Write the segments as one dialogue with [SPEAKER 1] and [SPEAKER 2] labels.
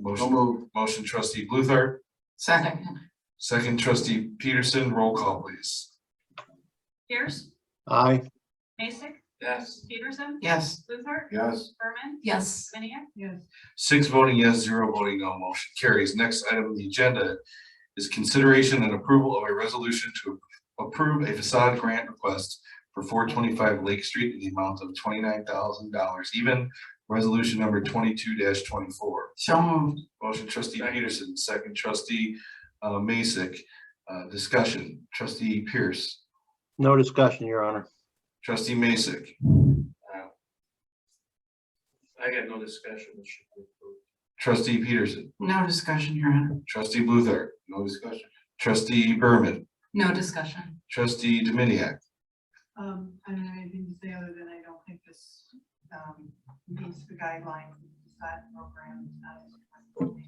[SPEAKER 1] Motion, motion trustee Luther,
[SPEAKER 2] Second,
[SPEAKER 1] second trustee Peterson, roll call please.
[SPEAKER 3] Pierce,
[SPEAKER 4] aye,
[SPEAKER 3] Mason,
[SPEAKER 1] Yes.
[SPEAKER 3] Peterson,
[SPEAKER 2] yes.
[SPEAKER 3] Luther,
[SPEAKER 1] Yes.
[SPEAKER 3] Berman,
[SPEAKER 2] Yes.
[SPEAKER 3] Minnick,
[SPEAKER 2] Yes.
[SPEAKER 1] Six voting yes, zero voting no, motion carries. Next item on the agenda is consideration and approval of a resolution to approve a facade grant request for four twenty-five Lake Street in the amount of twenty-nine thousand dollars, even resolution number twenty-two twenty-four.
[SPEAKER 2] So moved,
[SPEAKER 1] Motion trustee Peterson, second trustee uh Masek. Uh, discussion, trustee Pierce,
[SPEAKER 4] no discussion, your honor.
[SPEAKER 1] trustee Masek,
[SPEAKER 5] Uh, I got no discussion. It should be approved.
[SPEAKER 1] trustee Peterson,
[SPEAKER 2] no discussion, Your Honor.
[SPEAKER 1] trustee Luther. No discussion. Trustee Berman,
[SPEAKER 2] No discussion.
[SPEAKER 1] trustee Dominiac.
[SPEAKER 6] Um, I don't have anything to say other than I don't think this, um, meets the guidelines of the SAT program. um,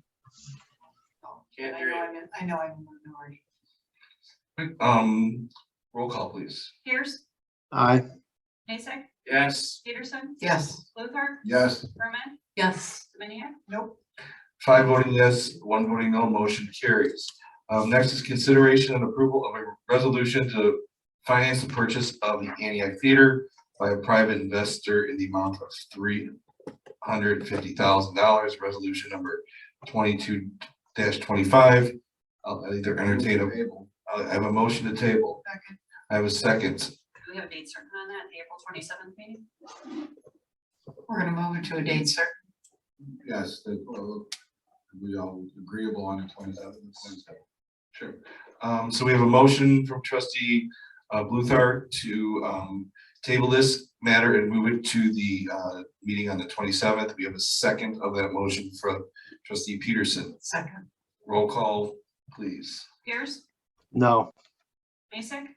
[SPEAKER 6] I
[SPEAKER 5] Can't hear
[SPEAKER 6] know
[SPEAKER 5] you.
[SPEAKER 6] I'm, in- I know I'm in the minority.
[SPEAKER 1] Um, roll call, please.
[SPEAKER 3] Pierce,
[SPEAKER 4] Aye,
[SPEAKER 3] Mason,
[SPEAKER 5] Yes,
[SPEAKER 3] Peterson,
[SPEAKER 2] Yes.
[SPEAKER 3] Luther,
[SPEAKER 1] Yes.
[SPEAKER 3] Berman,
[SPEAKER 2] Yes.
[SPEAKER 3] Minnick,
[SPEAKER 6] Nope,
[SPEAKER 1] Five voting yes, one voting no, motion carries. Um, next is consideration and approval of a resolution to finance the purchase of the Antioch Theater by a private investor in the amount of three hundred fifty thousand dollars, resolution number twenty-two twenty-five. I'll either entertain a, I have a motion to table.
[SPEAKER 6] Second.
[SPEAKER 1] I have a second.
[SPEAKER 3] do we have a date certain on that, April twenty-seventh meeting?
[SPEAKER 2] We're gonna move it to a date certain.
[SPEAKER 1] Yes, that, uh, we all agreeable on the twenty seventh. Sure. Um, so we have a motion from trustee, uh, Bluthart to, um, table this matter and move it to the, uh, meeting on the twenty seventh. We have a second of that motion from trustee Peterson.
[SPEAKER 2] Second,
[SPEAKER 1] Roll call, please.
[SPEAKER 3] Pierce,
[SPEAKER 4] no,
[SPEAKER 3] Mason,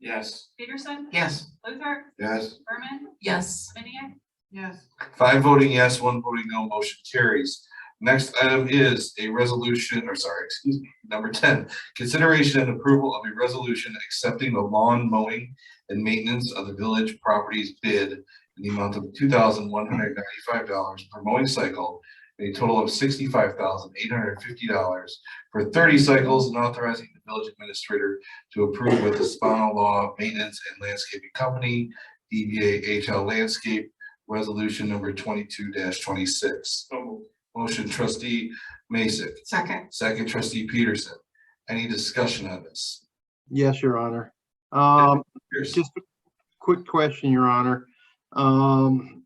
[SPEAKER 5] yes,
[SPEAKER 3] Peterson,
[SPEAKER 2] yes.
[SPEAKER 3] Luther,
[SPEAKER 1] Yes.
[SPEAKER 3] Berman,
[SPEAKER 2] Yes.
[SPEAKER 3] Minnick,
[SPEAKER 6] yes,
[SPEAKER 1] Five voting yes, one voting no, motion carries. Next item is a resolution, or sorry, excuse me, number ten, consideration and approval of a resolution accepting the lawn mowing and maintenance of the village properties bid in the amount of two thousand one hundred ninety-five dollars per mowing cycle, and a total of sixty-five thousand eight hundred fifty dollars for thirty cycles and authorizing the village administrator to approve with the Spano Law Maintenance and Landscaping Company, E DBA HL Landscape, Resolution number twenty-two twenty-six.
[SPEAKER 5] so moved.
[SPEAKER 1] Motion trustee Mason,
[SPEAKER 2] Second,
[SPEAKER 1] second trustee Peterson. Any discussion on this?
[SPEAKER 4] yes, your honor. Um,
[SPEAKER 1] Pierce?
[SPEAKER 4] just a quick question, your honor. Um,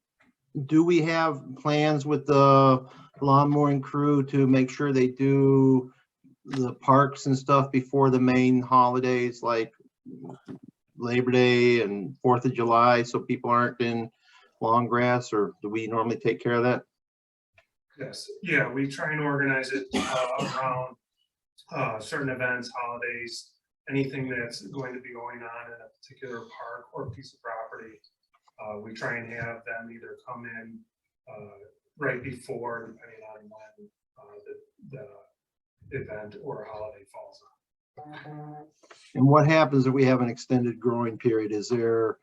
[SPEAKER 4] do we have plans with the lawn mowing crew to make sure they do the parks and stuff before the main holidays like Labor Day and Fourth of July, so people aren't in long grass, or do we normally take care of that?
[SPEAKER 7] Yes, yeah, we try and organize it uh, around uh, certain events, holidays, anything that's going to be going on in a particular park or piece of property. Uh, We try and have them either come in uh, right before, depending on when uh, the the event or holiday falls on.
[SPEAKER 4] And what happens if we have an extended growing period? Is there,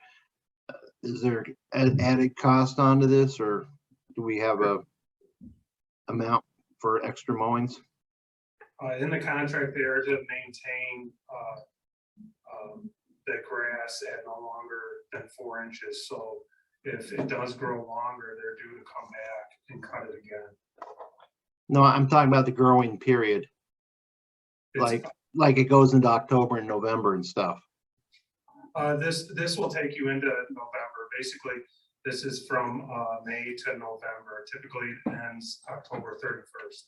[SPEAKER 4] uh, is there an added cost onto this or do we have a amount for extra mowings?
[SPEAKER 7] Uh, In the contract, they are to maintain uh, um, the grass at no longer than four inches. So if it does grow longer, they're due to come back and cut it again.
[SPEAKER 4] No, I'm talking about the growing period,
[SPEAKER 7] It's-
[SPEAKER 4] Like- like it goes into October and November and stuff.
[SPEAKER 7] Uh, This, this will take you into November. Basically, this is from uh, May to November. Typically it ends October 31st.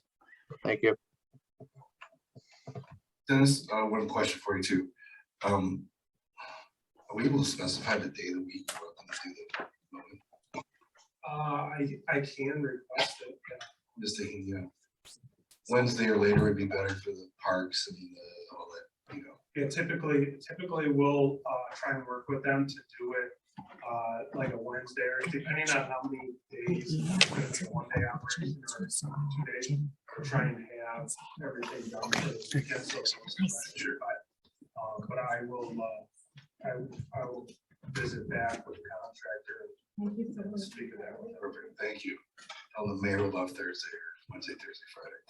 [SPEAKER 4] Thank you.
[SPEAKER 1] Dennis, uh, one question for you too. Um, are we able to specify the day of the week? we're gonna do the mowing?
[SPEAKER 7] Uh, I, I can request it.
[SPEAKER 1] Just thinking, you know, Wednesday or later would be better for the parks and the, all that, you know.
[SPEAKER 7] Yeah, typically, typically we'll uh, try and work with them to do it uh, like a Wednesday or depending on how many days. it's a One day operation or two days, we're trying to have everything done. for the weekend, so it's not sure, But uh, but I will, uh, I I will visit back with the contractor and speak of that with her.
[SPEAKER 1] Perfect, thank you. Tell the mayor we love Thursday. Wednesday, Thursday, Friday.